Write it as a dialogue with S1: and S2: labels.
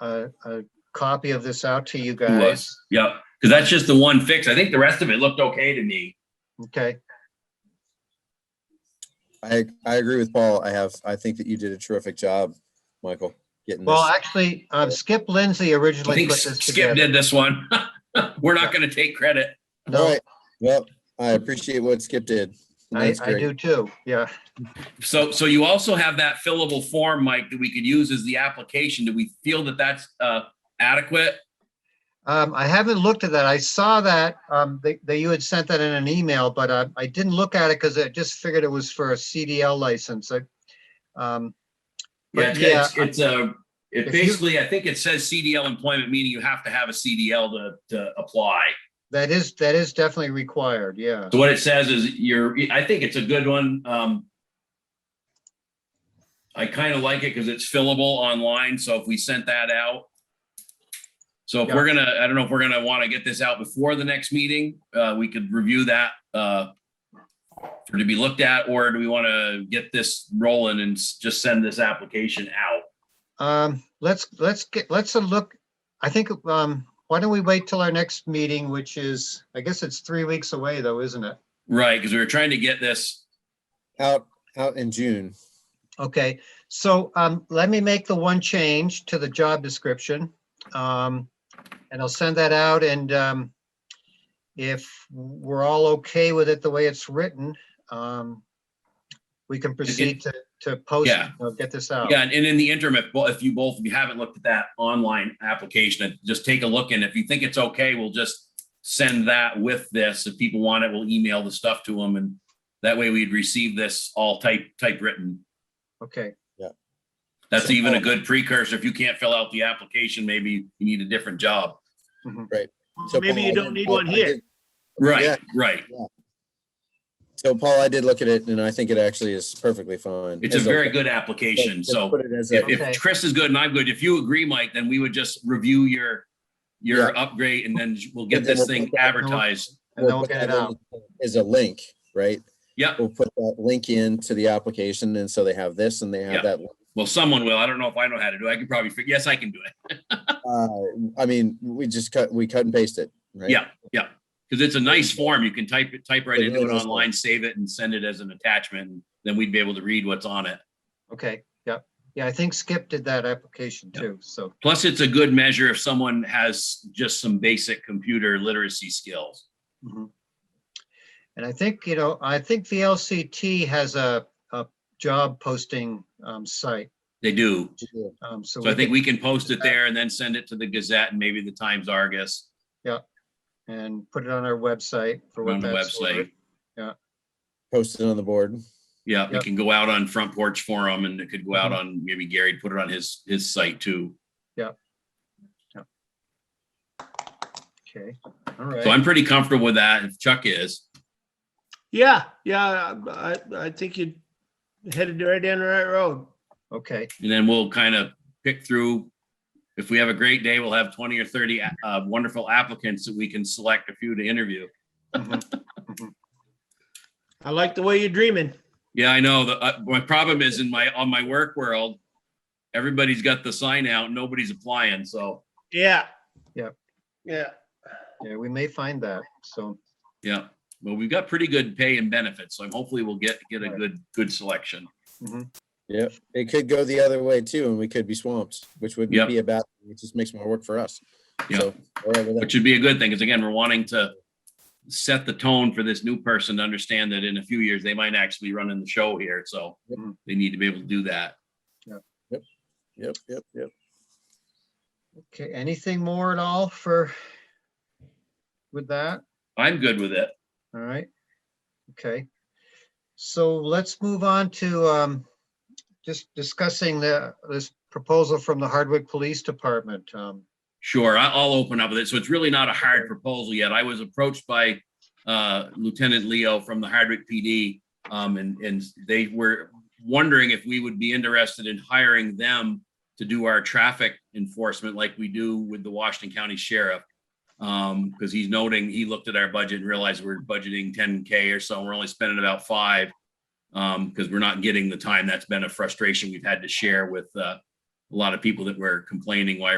S1: a, a copy of this out to you
S2: Who
S1: guys.
S2: was? Yep, because that's just the one fix. I think the rest of it looked okay to me.
S1: Okay,
S3: I, I agree with Paul. I have, I think that you did a terrific job, Michael, getting
S1: well,
S3: this.
S1: actually, um, Skip Lindsey
S2: I
S1: originally
S2: think
S1: put this
S2: Skip
S1: together.
S2: did this one. We're not going to take credit.
S3: All
S1: No,
S3: right. Well, I appreciate what Skip did. and
S1: I,
S3: that's
S1: I
S3: great.
S1: do too, yeah.
S2: So, so you also have that fillable form, Mike, that we could use as the application. Do we feel that that's uh, adequate?
S1: Um, I haven't looked at that. I saw that, um, that, that you had sent that in an email, but um, I, I didn't look at it because I just figured it was for a CDL license. I- Um,
S2: Yeah, it's-
S1: Yeah.
S2: it's, it's a,
S1: If
S2: it
S1: you-
S2: basically, I think it says CDL employment, meaning you have to have a CDL to, to apply.
S1: that is, that is definitely required, yeah.
S2: So what it says is you're, I think it's a good one. Um, I kind of like it because it's fillable online. So if we sent that out. So if we're gonna, I don't know if we're gonna want to get this out before the next meeting, uh, we could review that, uh, for to be looked at, or do we want to get this rolling and s- just send this application out?
S1: Um, let's, let's get, let's uh, look, I think, um, why don't we wait till our next meeting, which is, I guess it's three weeks away though, isn't it?
S2: Right, because we were trying to get this,
S3: Out, out in June.
S1: Okay, so um, let me make the one change to the job description. um, And I'll send that out and um, if we're all okay with it the way it's written, um, we can proceed to, to post,
S2: Yeah.
S1: uh, get this out.
S2: yeah, and and in the interim, if, bo- if you both, if you haven't looked at that online application, uh, just take a look, and if you think it's okay, we'll just send that with this, if people want it, we'll email the stuff to them, and that way we'd receive this all type, typewritten.
S1: Okay,
S2: That's even a good precursor, if you can't fill out the application, maybe you need a different job.
S3: So
S4: Maybe
S3: Paul,
S4: you
S3: I
S4: don't
S3: did-
S4: need
S3: I-
S4: one
S3: I
S4: here.
S3: did- Yeah.
S2: Right, right,
S3: So Paul, I did look at it and I think it actually is perfectly fine.
S2: it's a
S3: As
S2: very good application,
S3: let's
S2: so.
S3: Put it as a-
S2: If,
S1: Okay.
S2: if Chris is good and I'm good, if you agree, Mike, then we would just review your, your upgrade and then we'll get
S3: And then
S2: this
S3: we'll
S2: thing
S3: put that
S2: advertised.
S1: and then
S3: we'll
S1: we'll
S3: put
S1: get it
S3: that in
S1: out.
S3: As a link, right?
S2: Yep,
S3: We'll put that link in to the application and so they have this and they
S2: Yeah.
S3: have that. link.
S2: well, someone will. I don't know if I know how to do it. I could probably, fig- yes, I can do it.
S3: Uh, I mean, we just cut, we cut and paste it, right?
S2: Yeah, yeah. Because it's a nice form. You can type it, type right
S3: It's
S2: into it
S3: really nice form.
S2: online, save it and send it as an attachment. and Then we'd be able to read what's on it.
S1: Okay, yeah, yeah, I think Skip did that application
S2: Yeah.
S1: too, so,
S2: Plus, it's a good measure if someone has just some basic computer literacy skills.
S1: mhm. and I think, you know, I think VLCT has a, a job posting um, site.
S2: They do.
S3: Yeah.
S1: um, So
S2: So I
S1: we
S2: think
S1: can,
S2: we can post it there and then send it to the Gazette and maybe the Times Argus.
S1: and put it on our website for
S2: on
S1: what
S2: the
S1: that's worth.
S2: website.
S3: Post it on the board.
S2: Yeah, it
S1: Yep. Mm-hmm.
S2: can go out on Front Porch Forum and it could go out on, maybe Gary put it on his, his site too.
S1: Okay, all
S2: So
S1: right.
S2: I'm pretty comfortable with that. If Chuck is,
S4: Yeah, yeah, I, I think you headed right down the right road.
S1: Okay,
S2: and then we'll kind of pick through. If we have a great day, we'll have twenty or thirty uh, wonderful applicants that we can select a few to interview.
S1: mhm,
S4: I like the way you're dreaming.
S2: Yeah, I know. The, uh, my problem is in my, on my work world, everybody's got the sign out, nobody's applying, so,
S4: Yeah.
S1: Yep.
S4: Yeah.
S1: yeah, we may find that, so,
S2: yeah. Well, we've got pretty good pay and benefits, so hopefully we'll get, get a
S1: Right.
S2: good, good selection.
S3: Yep. It could go the other way too, and we could be swamped, which would
S2: Yep.
S3: be about, it just makes more work for us.
S2: Yep.
S3: So, we're over there.
S2: which would be a good thing, because again, we're wanting to set the tone for this new person to understand that in a few years, they might actually be running the show here, so
S3: Yep.
S2: they need to be able to do that.
S3: Yep, yep, yep.
S1: okay, anything more at all for with that?
S2: I'm good with it.
S1: All right, okay. So let's move on to um, just discussing the, this proposal from the Hardwick Police Department. um,
S2: Sure, I- I'll open up with it. So it's really not a hard proposal yet. I was approached by uh, Lieutenant Leo from the Hardwick PD. um, And, and they were wondering if we would be interested in hiring them to do our traffic enforcement like we do with the Washington County Sheriff. Because he's noting, he looked at our budget and realized we're budgeting 10K or so, and we're only spending about five. Because we're not getting the time. That's been a frustration we've had to share with uh, a lot of people that were complaining why